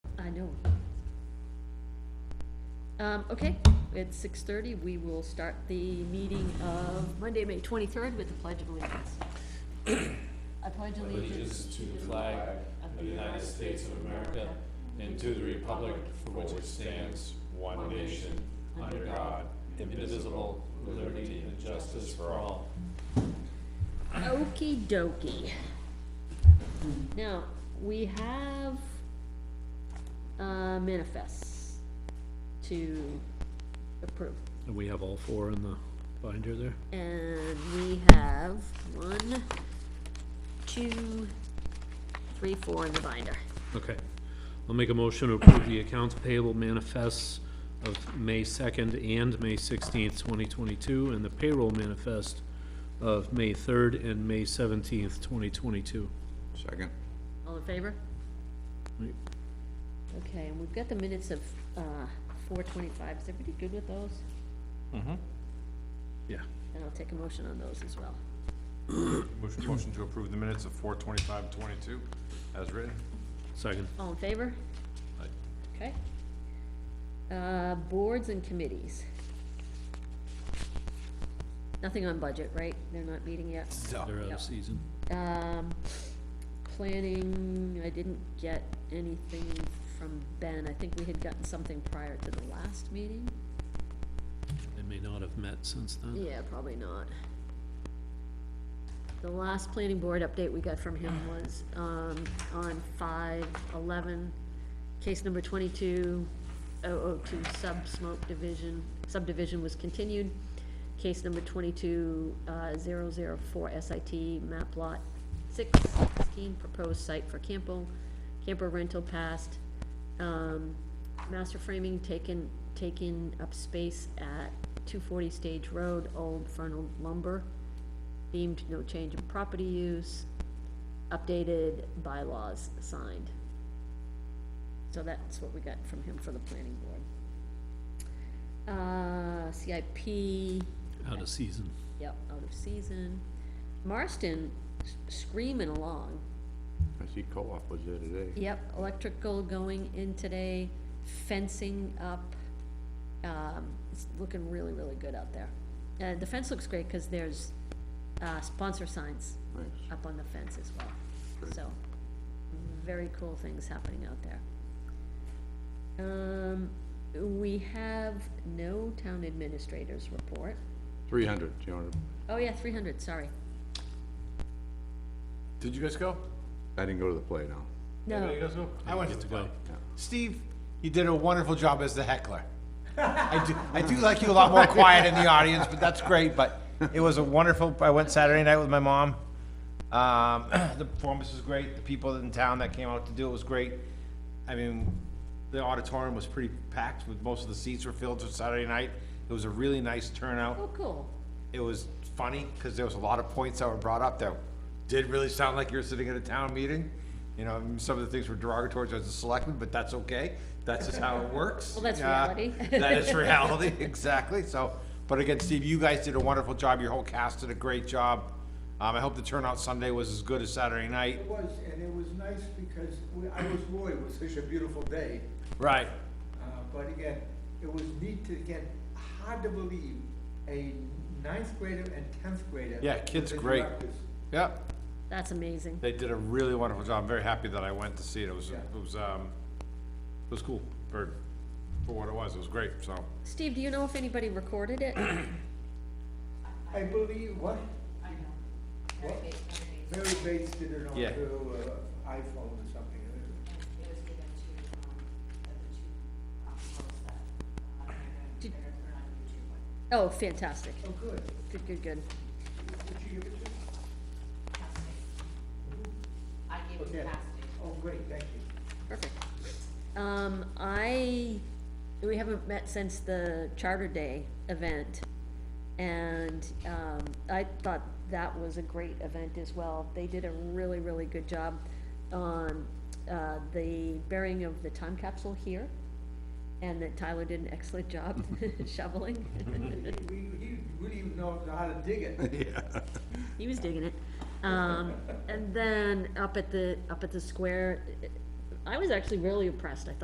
Um, okay, it's six thirty, we will start the meeting of Monday, May twenty-third with the Pledge of Allegiance. I pledge allegiance allegiance to the flag of the United States of America and to the republic for which it stands, one nation, under God, indivisible, with liberty and justice for all. Okey dokey. Now, we have, uh, manifests to approve. And we have all four in the binder there? And we have one, two, three, four in the binder. Okay. I'll make a motion to approve the accounts payable manifests of May second and May sixteenth, twenty twenty-two, and the payroll manifest of May third and May seventeenth, twenty twenty-two. Second. All in favor? Right. Okay, and we've got the minutes of, uh, four twenty-five. Is everybody good with those? Yeah. And I'll take a motion on those as well. Motion, motion to approve the minutes of four twenty-five twenty-two as written. Second. All in favor? Aye. Okay. Uh, boards and committees. Nothing on budget, right? They're not meeting yet. They're out Yeah. of season. Um, planning, I didn't get anything from Ben. I think we had gotten something prior to the last meeting. They may not have met since then. Yeah, probably not. The last planning board update we got from him was, um, on five eleven, case number twenty-two oh oh two sub smoke division, subdivision was continued. Case number twenty-two, uh, zero zero four SIT map lot six sixteen, proposed site for Campo, camper rental passed. Um, master framing taken, taking up space at two forty Stage Road, old Fernal lumber. Deemed no change in property use, updated bylaws signed. So that's what we got from him for the planning board. Uh, CIP, Out of season. yep, out of season. Marston s- screaming along. I see co-op was there today. Yep, electrical going in today, fencing up, um, it's looking really, really good out there. Uh, the fence looks great, cause there's, uh, sponsor signs Nice. up on the fence as well, so, very cool things happening out there. Um, we have no town administrators report, Three hundred, you know, oh yeah, three hundred, sorry, Did you guys go? I didn't go to the play now. no, guys go? I went to Good the to go. play. Steve, you did a wonderful job as the heckler. I do, I do like you a lot more quiet in the audience, but that's great. But it was a wonderful. I went Saturday night with my mom. Um, the performance was great. The people in town that came out to do it was great. I mean, the auditorium was pretty packed. With most of the seats were filled for Saturday night. It was a really nice turnout oh, cool, it was funny because there was a lot of points that were brought up that did really sound like you were sitting at a town meeting. You know, and some of the things were derogatory towards the selectmen, but that's okay. That's just how it works. Well, that's Uh, reality. That is reality, exactly. So, but again, Steve, you guys did a wonderful job. Your whole cast did a great job. Um, I hope the turnout Sunday was as good as Saturday night. It was, and it was nice because we- I was worried, it was such a beautiful day. Right. Uh, But again, it was neat to, again, hard to believe, a ninth grader and tenth grader. Yeah, kids were the great. directors. Yep. that's amazing. They did a really wonderful job. I'm very happy that I went to see it. It was, it was, um, it was cool for, for what it was. It was great, so. Steve, do you know if anybody recorded it? I believe, what? I know. Mary Bates did it on Yeah. her uh, iPhone or something. uh, it was given to, um, the the two, um, folks that, uh, they're gonna, Did- they're gonna put it on YouTube, but Oh, fantastic, Oh, good. good, good, good. Did she give it to you? I gave it to Okay. Cassidy. Oh, great, thank you. Perfect. Um, I, we haven't met since the Charter Day event, and, um, I thought that was a great event as well. They did a really, really good job on, uh, the burying of the time capsule here, and that Tyler did an excellent job shoveling. We, he really even know how to dig it. Yeah. He was digging it. Um, and then up at the, up at the square, I was actually really impressed. I thought